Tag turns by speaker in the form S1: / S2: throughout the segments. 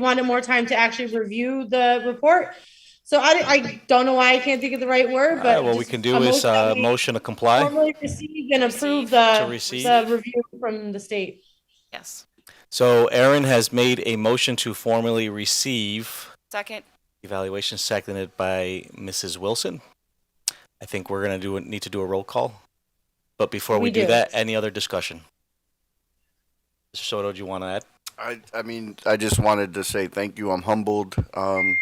S1: wanted more time to actually review the report. So I, I don't know why I can't think of the right word,
S2: All right,
S1: but.
S2: what we
S1: just
S2: can
S1: a
S2: do is uh,
S1: that we
S2: motion to comply.
S1: Formally receive and approve
S2: To
S1: the,
S2: receive.
S1: the review from the state.
S3: Yes.
S2: So Aaron has made a motion to formally receive
S3: Second?
S2: evaluation seconded by Mrs. Wilson. I think we're going to do, need to do a roll call. But before we
S1: We
S2: do
S1: do.
S2: that, any other discussion? Mr. Soto, do you want to add?
S4: I, I mean, I just wanted to say thank you. I'm humbled. Um,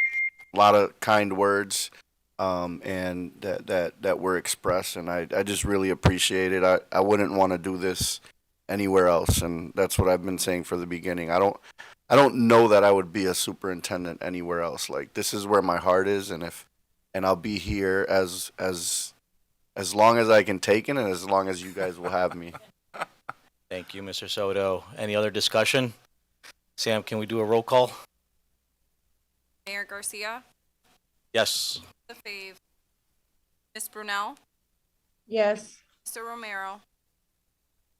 S4: a lot of kind words, um, and that, that, that were expressed, and I, I just really appreciate it. I, I wouldn't want to do this anywhere else, and that's what I've been saying for the beginning. I don't, I don't know that I would be a superintendent anywhere else. Like this is where my heart is, and if, and I'll be here as, as, as long as I can take it, and as long as you guys will have me.
S2: Thank you, Mr. Soto. Any other discussion? Sam, can we do a roll call?
S5: Mayor Garcia,
S2: Yes.
S5: the fave. Ms. Brunel,
S1: Yes.
S5: Mr. Romero,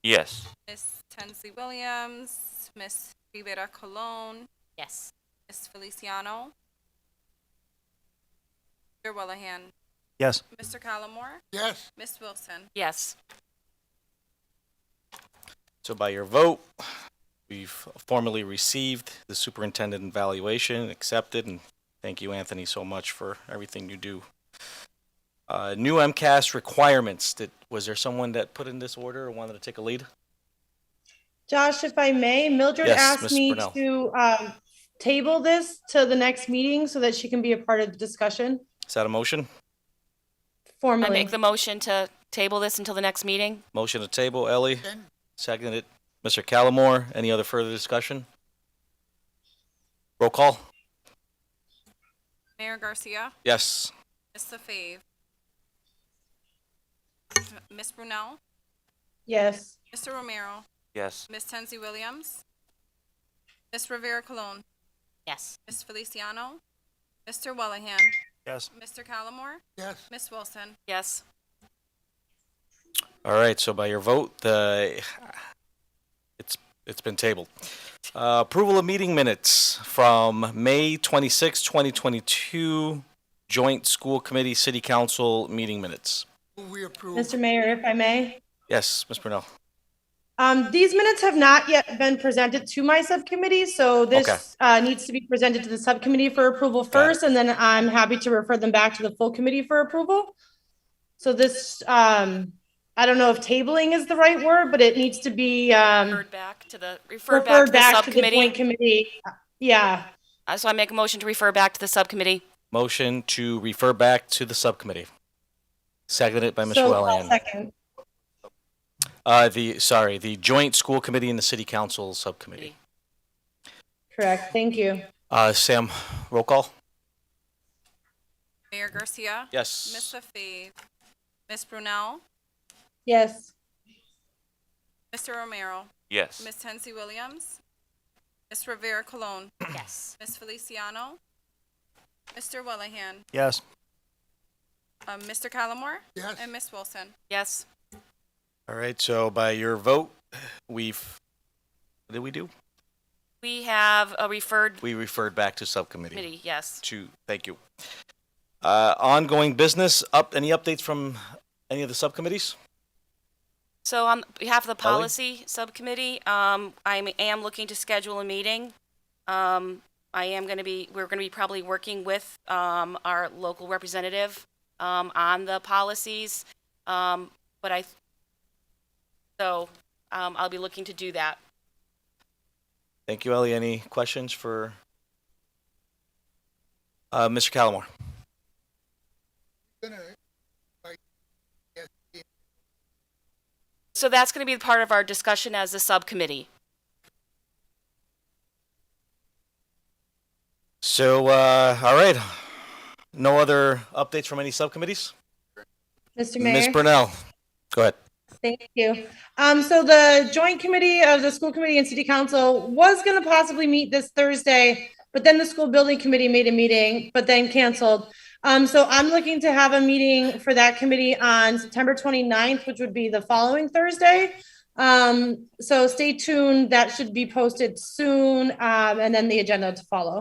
S6: Yes.
S5: Ms. Tensley Williams, Ms. Rivera Colon,
S3: Yes.
S5: Ms. Feliciano. Mr. Willoughby,
S2: Yes.
S5: Mr. Callamore. Yes. Ms. Wilson.
S3: Yes.
S2: So by your vote, we've formally received the superintendent evaluation, accepted, and thank you, Anthony, so much for everything you do. Uh, new MCAS requirements, did, was there someone that put in this order or wanted to take a lead?
S1: Josh, if I may, Mildred
S2: Yes,
S1: asked
S2: Ms.
S1: me
S2: Brunel.
S1: to, um, table this to the next meeting so that she can be a part of the discussion
S2: Is that a motion?
S3: I
S1: formally.
S3: make the motion to table this until the next meeting?
S2: Motion to table, Ellie? Seconded, Mr. Callamore, any other further discussion? Roll call?
S5: Mayor Garcia,
S2: Yes.
S5: Ms. the fave. Ms. Brunel,
S1: Yes.
S5: Mr. Romero,
S6: Yes.
S5: Ms. Tensley Williams, Ms. Rivera Colon,
S3: Yes.
S5: Ms. Feliciano, Mr. Willoughby,
S2: Yes.
S5: Mr. Callamore. Yes. Ms. Wilson.
S3: Yes.
S2: All right, so by your vote, the, it's, it's been tabled. Uh, Approval of meeting minutes from May 26, 2022, Joint School Committee City Council meeting minutes.
S7: We approve.
S1: Mr. Mayor, if I may.
S2: Yes, Ms. Brunel?
S1: Um, these minutes have not yet been presented to my subcommittee, so
S2: Okay.
S1: this, uh, needs to be presented to the subcommittee for approval first, and then I'm happy to refer them back to the full committee for approval. So this, um, I don't know if tabling is the right word, but it needs to be, um,
S3: Referred back to the, referred Mm. back to
S1: referred
S3: the
S1: back to the joint
S3: subcommittee.
S1: committee. Yeah,
S3: Uh, So I make a motion to refer back to the subcommittee.
S2: Motion to refer back to the subcommittee. Seconded by Ms.
S1: so, I'll
S2: Wellen.
S1: second,
S2: Uh, the, sorry, the Joint School Committee and the City Council Subcommittee.
S1: correct, thank you.
S2: Uh, Sam, roll call?
S5: Mayor Garcia. Ms.
S2: Yes.
S5: Lefebvre, Ms. Brunel,
S1: Yes,
S5: Mr. Romero,
S6: Yes.
S5: Ms. Tensley Williams, Ms. Rivera Colon,
S3: Yes.
S5: Ms. Feliciano, Mr. Willoughby,
S2: Yes.
S5: uh, Mr. Callamore,
S7: Yes.
S5: and Ms. Wilson.
S3: Yes.
S2: All right, so by your vote, we've, what did we do?
S3: We have a referred
S2: We referred back to subcommittee.
S3: committee, yes.
S2: to, thank you. Uh, Ongoing business, up, any updates from any of the subcommittees?
S3: So on behalf of the
S2: Ellie?
S3: policy subcommittee, um, I am looking to schedule a meeting. Um, I am going to be, we're going to be probably working with, um, our local representative, um, on the policies. Um, but I, so, um, I'll be looking to do that.
S2: Thank you, Ellie. Any questions for uh, Mr. Callamore?
S7: Gonna-
S3: So that's going to be part of our discussion as a subcommittee.
S2: So, uh, all right, no other updates from any subcommittees?
S1: Mr. Mayor.
S2: Ms. Brunel, go ahead.
S1: Thank you. Um, so the joint committee of the school committee and city council was gonna possibly meet this Thursday, but then the school building committee made a meeting, but then canceled. Um, so I'm looking to have a meeting for that committee on September 29th, which would be the following Thursday. Um, so stay tuned. That should be posted soon. Um, and then the agenda to follow.